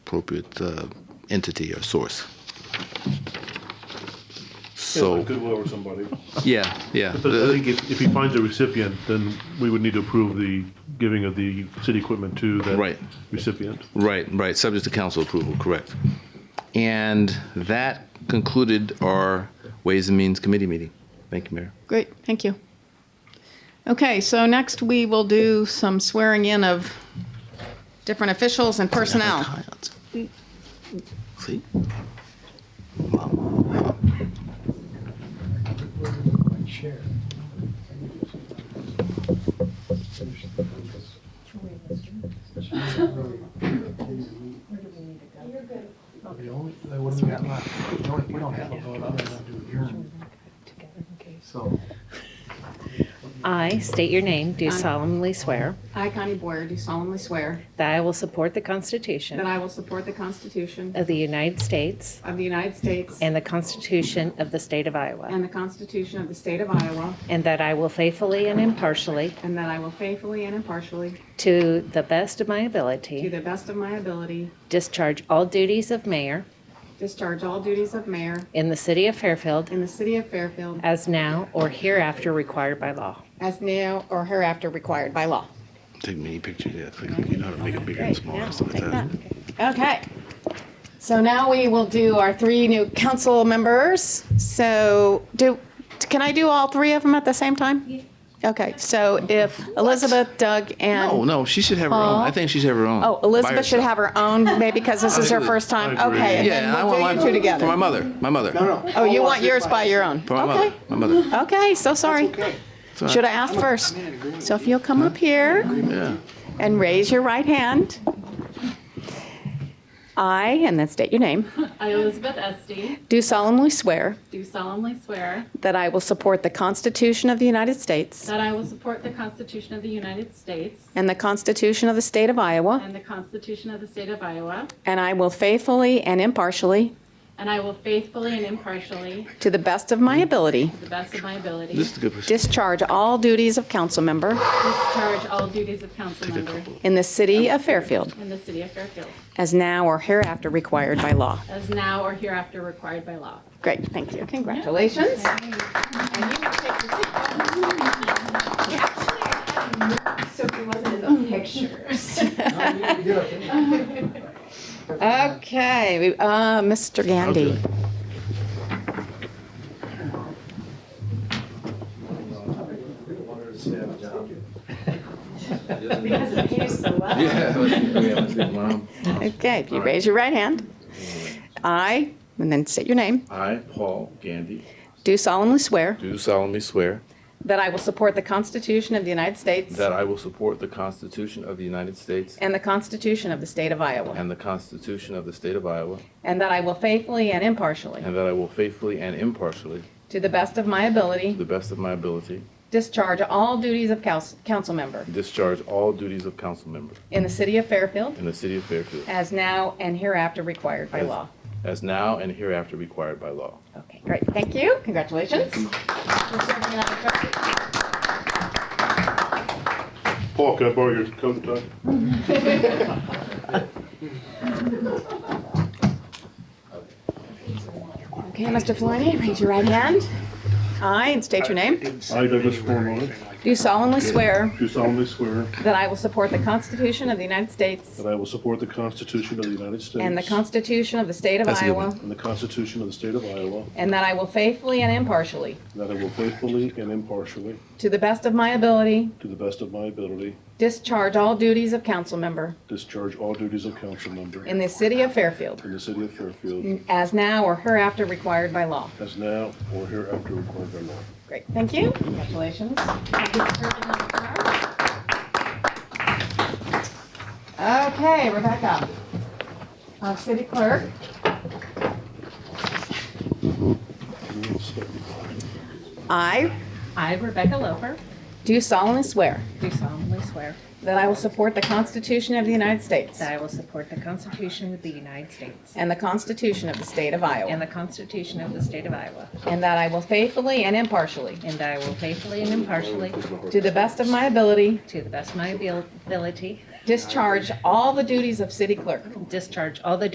appropriate uh, entity or source. So, like Goodwill or somebody. yeah, yeah. But I think if, if he finds a recipient, then we would need to approve the giving of the city equipment to that Right. recipient. Right, right, subject to council approval, correct. And that concluded our Ways and Means Committee meeting. Thank you, Mayor. Great, thank you. Okay, so next we will do some swearing in of different officials and personnel. See? The only, the- what do we got left? We don't, we don't have a vote other than to adjourn, so. I state your name, do I'm- solemnly swear I, Connie Boyer, do solemnly swear that I will support the Constitution that I will support the Constitution of the United States of the United States and the Constitution of the State of Iowa, and the Constitution of the State of Iowa, and that I will faithfully and impartially, and that I will faithfully and impartially, to the best of my to ability, the best of my ability, discharge all duties of mayor discharge all duties of mayor in the city of Fairfield in the city of Fairfield as now or hereafter required by law. as now or hereafter required by law. Take mini pictures, yeah, like, you know how to make it bigger and smaller, and stuff like that. Okay. So now we will do our three new council members. So do, can I do all three of them at the same time? Okay, so if Elizabeth, Doug, No, and, Oh, no, she should have her own. I think she should have her own. oh, Elizabeth should have her own, maybe because this is her Absolutely. first time. I agree. Okay, and Yeah, and I then want we'll do you mine two for my together. mother, my mother. Oh, you want yours by your own? For my mother, Okay, my mother. okay, so sorry. Okay, It's all right. Should I ask first? So if you'll come up here. Yeah. And raise your right hand. I, and then state your name, I, Elizabeth Estee, do solemnly swear do solemnly swear that I will support the Constitution of the United States that I will support the Constitution of the United States and the Constitution of the State of Iowa, and the Constitution of the State of Iowa, and I will faithfully and impartially, and I will faithfully and impartially, to the best of my ability, to the best of my ability, This is a good person. discharge all duties of council member discharge all duties of council member in the city of Fairfield, in the city of Fairfield, as now or hereafter required by law. as now or hereafter required by law. Great, thank you. Congratulations. Okay, we- uh, Mr. Gandy. Okay, if you raise your right hand. I, and then state your name, I, Paul Gandy, do solemnly swear do solemnly swear that I will support the Constitution of the United States that I will support the Constitution of the United States and the Constitution of the State of Iowa, and the Constitution of the State of Iowa, and that I will faithfully and impartially, and that I will faithfully and impartially, to the best of my to ability, the best of my ability, discharge all duties of council council member discharge all duties of council member in the city of Fairfield in the city of Fairfield, as now and hereafter required by As- law. as now and hereafter required by law. Okay, great, thank you, congratulations. For serving in our church. Paul, can I borrow your coat, Doug? Okay, Mr. Florney, raise your right hand. I, and state your name, I, Douglas Forman, do solemnly swear do solemnly swear that I will support the Constitution of the United States that I will support the Constitution of the United States and the Constitution of the State of That's a good one. Iowa, and the Constitution of the State of Iowa, and that I will faithfully and impartially, and that I will faithfully and impartially, to the best of my ability, to the best of my ability, discharge all duties of council member discharge all duties of council member in the city of Fairfield, in the city of Fairfield as now or hereafter required by law. as now or hereafter required by law. Great, thank you. Congratulations. Okay, Rebecca, our city clerk. I I, Rebecca Loper, do solemnly swear do solemnly swear that I will support the Constitution of the United States That I will support the Constitution of the United States and the Constitution of the State of and Iowa, the Constitution of the State of Iowa, and that I will faithfully and impartially, and that I will faithfully and impartially, to the best of my ability, to the best of my abil- ability, discharge all the duties of city clerk. discharge all the